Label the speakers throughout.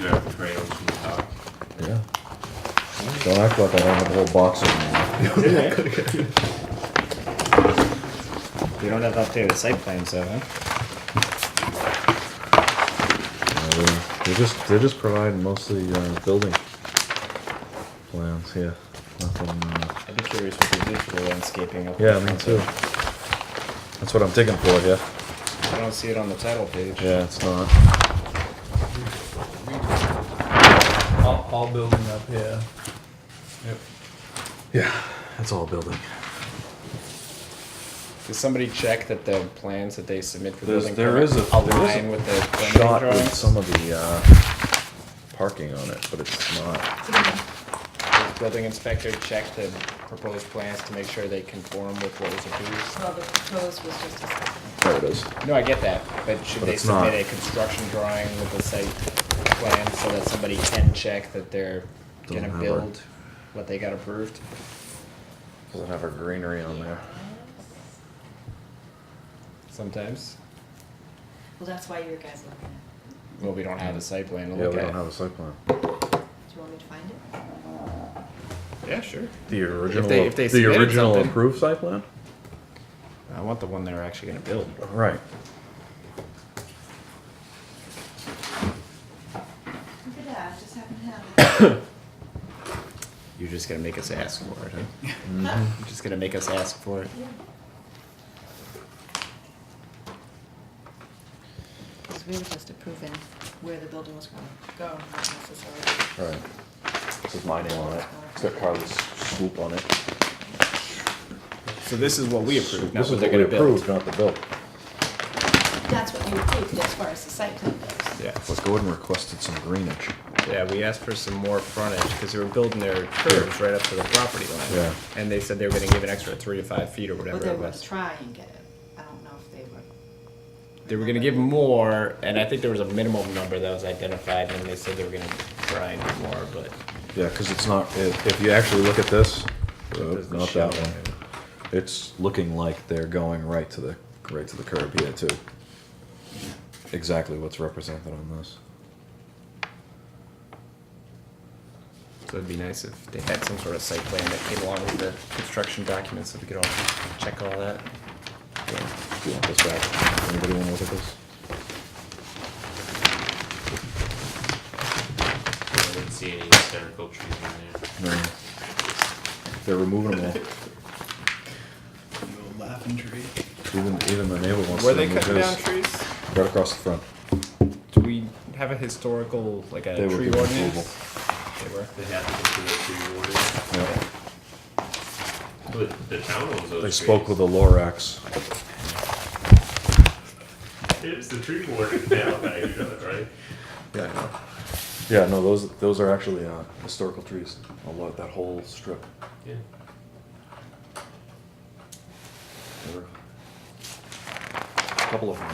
Speaker 1: There are trails from the top.
Speaker 2: Yeah. Don't act like I don't have a whole box of them.
Speaker 3: We don't have updated site plans though, huh?
Speaker 2: Uh, They're just, they're just providing mostly, uh, building plans, yeah. Nothing, uh,
Speaker 3: I'd be curious what they did for the landscaping up
Speaker 2: yeah,
Speaker 3: in
Speaker 2: me
Speaker 3: front,
Speaker 2: too. That's what I'm digging for, yeah.
Speaker 3: but I don't see it on the title page.
Speaker 2: Yeah, it's not.
Speaker 4: All, all building up, yeah. Yep.
Speaker 2: Yeah, it's all building.
Speaker 3: Did somebody check that the plans that they submit for
Speaker 2: There's-
Speaker 3: building
Speaker 2: there
Speaker 3: permit
Speaker 2: is a- there is a
Speaker 3: align with the planning
Speaker 2: Shot with
Speaker 3: drawings?
Speaker 2: some of the, uh, parking on it, but it's not.
Speaker 3: Does Building inspector checked the proposed plans to make sure they conform with what was approved?
Speaker 5: Well, the proposed was just a second.
Speaker 2: There it is.
Speaker 3: No, I get that, but should
Speaker 2: But
Speaker 3: they
Speaker 2: it's not.
Speaker 3: submit a construction drawing with the site plan so that somebody can check that they're
Speaker 2: Doesn't
Speaker 3: gonna
Speaker 2: have a-
Speaker 3: build what they got approved?
Speaker 2: Doesn't have our greenery on there.
Speaker 3: Sometimes,
Speaker 5: Well, that's why you were guys looking at
Speaker 3: well, we don't have a site plan to
Speaker 2: Yeah,
Speaker 3: look
Speaker 2: we don't have
Speaker 3: at.
Speaker 2: a site plan.
Speaker 5: it. Do you want me to find it?
Speaker 3: Yeah, sure.
Speaker 2: The original,
Speaker 3: they- if they
Speaker 2: the
Speaker 3: submitted
Speaker 2: original
Speaker 3: something.
Speaker 2: approved site plan?
Speaker 3: I want the one they're actually gonna build.
Speaker 2: Right.
Speaker 5: Look at that, I just haven't had it.
Speaker 3: You're just gonna make us ask for it, huh?
Speaker 5: Mm-hmm.
Speaker 3: You're just gonna make us ask for it.
Speaker 5: Because we were just approving where the building was gonna go, not necessarily.
Speaker 2: Right. This is my name on it. It's got Carly's swoop on it.
Speaker 3: So this is what we approved, not
Speaker 2: This
Speaker 3: what
Speaker 2: is
Speaker 3: they're
Speaker 2: what we
Speaker 3: gonna
Speaker 2: approved,
Speaker 3: build.
Speaker 2: not the bill.
Speaker 5: That's what you approved as far as the site plan goes.
Speaker 3: Yeah.
Speaker 2: But Gordon requested some greenage.
Speaker 3: Yeah, we asked for some more frontage, because they were building their curves right up to the property line.
Speaker 2: Yeah.
Speaker 3: And they said they were gonna give an extra three to five feet or
Speaker 5: Well,
Speaker 3: whatever
Speaker 5: they
Speaker 3: it
Speaker 5: were
Speaker 3: was.
Speaker 5: trying to get it. I don't know if they were.
Speaker 3: They were gonna give more, and I think there was a minimum number that was identified, and they said they were gonna try and do more, but.
Speaker 2: Yeah, because it's not, if, if you actually look at this, uh,
Speaker 3: There's the
Speaker 2: not
Speaker 3: shell
Speaker 2: that one.
Speaker 3: on it.
Speaker 2: It's looking like they're going right to the, right to the curb here too. Exactly what's represented on this.
Speaker 3: So it'd be nice if they had some sort of site plan that came along with the construction documents, so we could all check all that.
Speaker 2: So, Do you want this back? Anybody want to look at this?
Speaker 1: I didn't see any hysterical trees in there.
Speaker 2: No. They're removing them all.
Speaker 4: Laughing tree.
Speaker 2: Even, even the neighbor wants to
Speaker 3: Were they
Speaker 2: remove
Speaker 3: cutting down
Speaker 2: his.
Speaker 3: trees?
Speaker 2: Right across the front.
Speaker 3: Do we have a historical, like a
Speaker 2: They were
Speaker 3: tree
Speaker 2: given
Speaker 3: ordinance? They were.
Speaker 1: They had to go through the tree
Speaker 2: Yeah.
Speaker 1: warden. But the town owns those
Speaker 2: They
Speaker 1: trees.
Speaker 2: spoke with the Lorax.
Speaker 1: It's the tree warden now, that I do that, right?
Speaker 2: Yeah, I know. Yeah, no, those, those are actually, uh, historical trees, a lot, that whole strip.
Speaker 1: Yeah.
Speaker 2: There were A Couple of them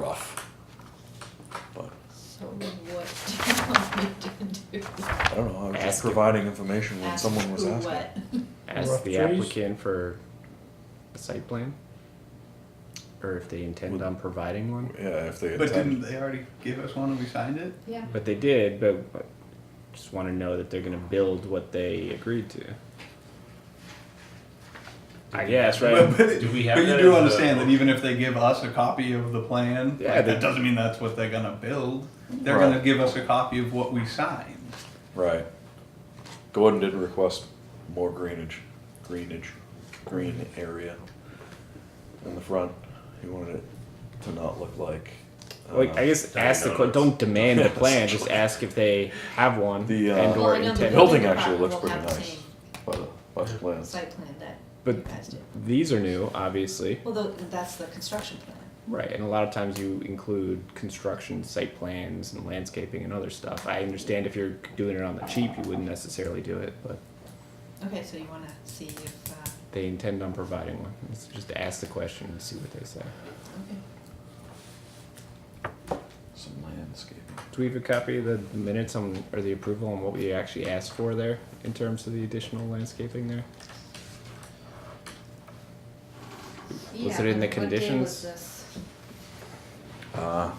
Speaker 2: are rough. But,
Speaker 5: So what do you want me to do?
Speaker 2: I don't know, I was just
Speaker 3: Ask him.
Speaker 2: providing information when
Speaker 5: Ask
Speaker 2: someone was
Speaker 5: who
Speaker 2: asking.
Speaker 5: what?
Speaker 3: Ask
Speaker 4: Rough
Speaker 3: the
Speaker 4: trees?
Speaker 3: applicant for a site plan? Or if they intend
Speaker 2: Would-
Speaker 3: on providing one?
Speaker 2: Yeah, if they
Speaker 4: But didn't
Speaker 2: attend.
Speaker 4: they already give us one and we signed it?
Speaker 5: Yeah.
Speaker 3: But they did, but but just wanna know that they're gonna build what they agreed to. I guess,
Speaker 4: But,
Speaker 3: right?
Speaker 4: but-
Speaker 1: Do we have
Speaker 4: but you
Speaker 1: that
Speaker 4: do
Speaker 1: as a-
Speaker 4: understand that even if they give us a copy of the plan,
Speaker 3: Yeah,
Speaker 4: like,
Speaker 3: they-
Speaker 4: that doesn't mean that's what they're gonna build. They're
Speaker 2: Right.
Speaker 4: gonna give us a copy of what we signed.
Speaker 2: Right. Gordon did request more greenage, greenage, green area in the front. He wanted it to not look like.
Speaker 3: Like,
Speaker 2: uh,
Speaker 3: I guess
Speaker 1: I
Speaker 3: ask the, que-
Speaker 1: noticed.
Speaker 3: don't demand the
Speaker 2: Yes.
Speaker 3: plan, just ask if they have one
Speaker 2: The, uh,
Speaker 3: and
Speaker 2: Well,
Speaker 3: or
Speaker 5: I know the
Speaker 3: intend.
Speaker 2: Building
Speaker 5: building
Speaker 2: actually looks pretty
Speaker 5: department will have
Speaker 2: nice by the, by the
Speaker 5: the same
Speaker 2: plans.
Speaker 5: Site plan that you
Speaker 3: But-
Speaker 5: guys did.
Speaker 3: These are new, obviously.
Speaker 5: Well, tho- that's the construction plan.
Speaker 3: Right, and a lot of times you include construction, site plans, and landscaping and other stuff. I understand if you're doing it on the cheap, you wouldn't necessarily do it, but
Speaker 5: Okay, so you wanna see if, uh,
Speaker 3: they intend on providing one. Let's just ask the question and see what they say.
Speaker 5: okay.
Speaker 2: Some landscaping.
Speaker 3: Do we have a copy of the minutes on, or the approval on what we actually asked for there in terms of the additional landscaping there? Was
Speaker 5: Yeah,
Speaker 3: it in the
Speaker 5: what day was
Speaker 3: conditions?
Speaker 5: this?
Speaker 2: Uh,